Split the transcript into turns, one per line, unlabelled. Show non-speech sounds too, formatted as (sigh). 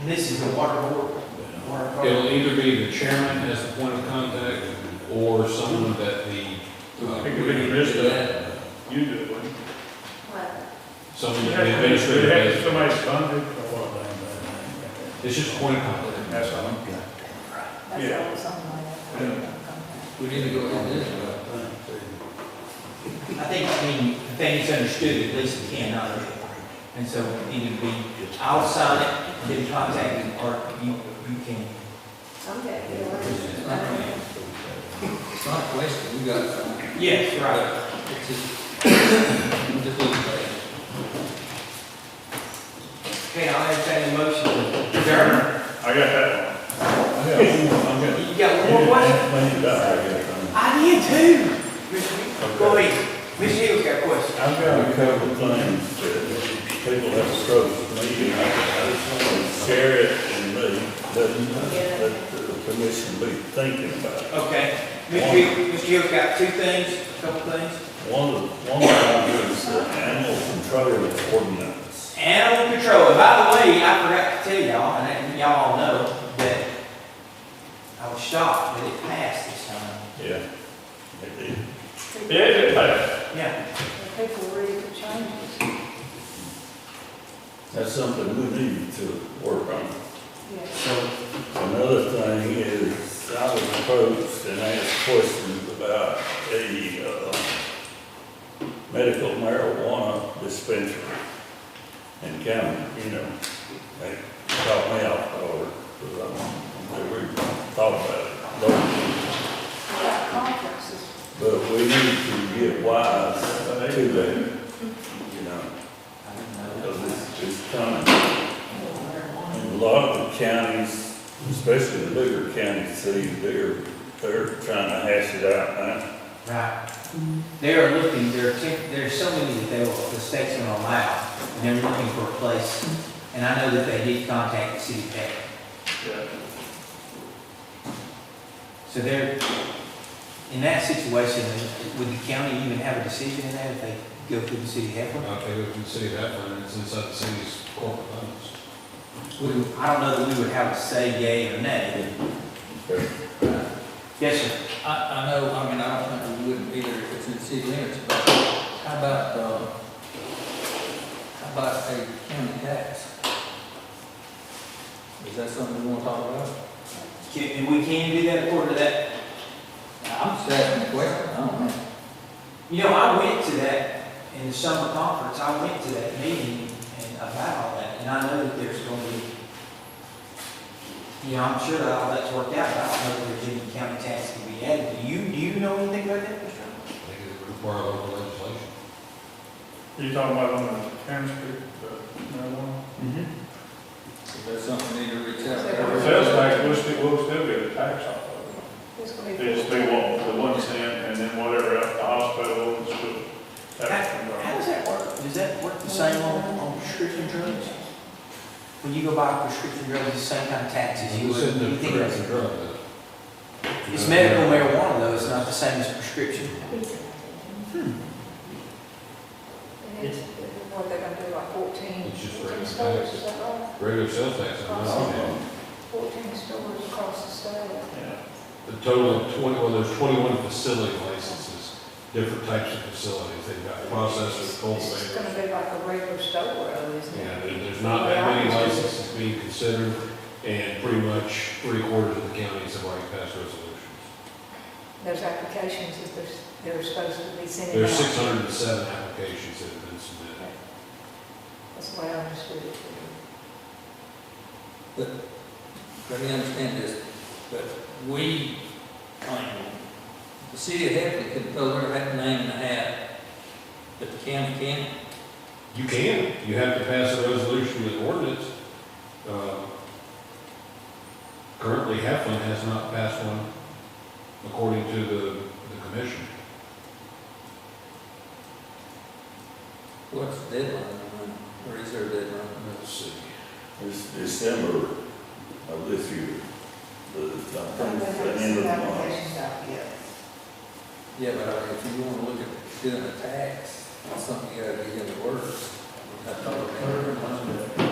And this is the water board. Water
It'll
board.
either be the chairman as the point of contact, or someone that the. uh,
It could be the administrator. You do it, wouldn't you?
What?
Someone
You
that
have
the
to- you
administrator
have to-
has,
Somebody's contact or what?
it's just a point of contact.
That's all. Yeah.
That's all, something like that.
We need to go in this way.
I think, I mean, I think it's understood, at least we can, uh, and so either be outside it, get contacted, or you, you can.
Okay, you know
It's
what?
not-
I mean,
It's not wasted, we got some.
Yes, right.
It's just, we just need to
Okay, I'll entertain a motion to adjourn.
I got that one. I got one, I'm (laughs) gonna-
You got one more question?
Clean it up, I guess.
I did too. Mr. Go ahead. Ms. Hill got a question.
I've got a couple of things that people have approached me, and I I just want to share it and let, let let the commission be thinking about it.
Okay. Ms. Hill, Ms. Hill's got two things, a couple things.
One of, one of them is the animal control ordinance.
Animal control. And By the way, I forgot to tell y'all, and that- y'all all know, that I was shocked that it passed this time.
Yeah. It did.
people-
Yeah, it passed.
Yeah.
People ready for changes.
That's something we need to work on.
Yeah.
So
Another thing is, I was approached and asked questions about a, uh, medical marijuana dispensary in county, you know. They caught me off guard, because I, they were, thought about it. Don't
We got conferences.
But we need to get wise to that, you know,
I didn't know.
because it's, it's coming. And a lot of the counties, especially the bigger counties, cities, they're, they're trying to hash it out now.
Right. They are looking, there are, tech- there are so many that they will, the state's gonna allow, and they're looking for a place. And I know that they did contact the city tech, so they're, in that situation, would the county even have a decision in that if they go through the city health?
I think we can say that, and it's inside the city's corporate limits.
We, I don't know that we would have to say yay or nay. Yes, sir.
go. uh, I, I know, I mean, I don't think we wouldn't be there if it's in city limits, but how about, uh, how about a county tax? Is that something we wanna talk about?
Can, and we can do that according to that
I'm just asking a question, I don't know.
You know, I went to that, in the summer conference, I went to that meeting and about all that, and I know that there's gonna be, you know, I'm sure that all that's worked out, but I don't know if there's any county tax to be added. Do you, do you know anything about that, Mr. Allen?
I think it would require local legislation.
You talking about on the Karen Street, the marijuana?
Is that something we need to reach out?
It
Sales tax, we'll still, we'll still get a tax off of
It's gonna
it.
be-
They just pay one, the one cent, and then whatever, at the hospital, the school.
How does that work? Does that work the same on, on prescription drugs? When you go buy a prescription drug, it's the same kind of taxes you
It's
would,
in the
you think
correct
that's-
drug, but-
It's medical marijuana though, it's not the same as prescription.
And it's, what they're gonna do, like fourteen,
It's just
fourteen
raising
stores,
taxes.
is that right?
Regular sales tax, I'm not on that.
Fourteen stores across the state.
The total of twenty, well, there's twenty-one facility licenses, different types of facilities. They've got processors,
It's just gonna
cultivators.
be like a regular store, really, isn't
Yeah,
it?
there- there's not that many licenses being considered, and pretty much three quarters of the counties have already passed resolutions.
There's applications that there's, they're supposed to be sending out.
There's six hundred and seven applications that have been submitted.
That's what I understood it to be.
But, let me understand this, but we claim, the city of Hefley can throw their hat name in the hat, but the county can't.
You can, you have to pass a resolution with ordinance. Uh, Currently, Heflin has not passed one according to the, the commission.
What's the deadline, on that? or is there a deadline?
Let's see.
It's December of this year, the, I
I
think
don't
it's
think
the
I've
end of
seen
the month.
applications out yet.
Yeah, but I mean, if you wanna look at doing a tax, that's something you gotta be in the works. I thought it was-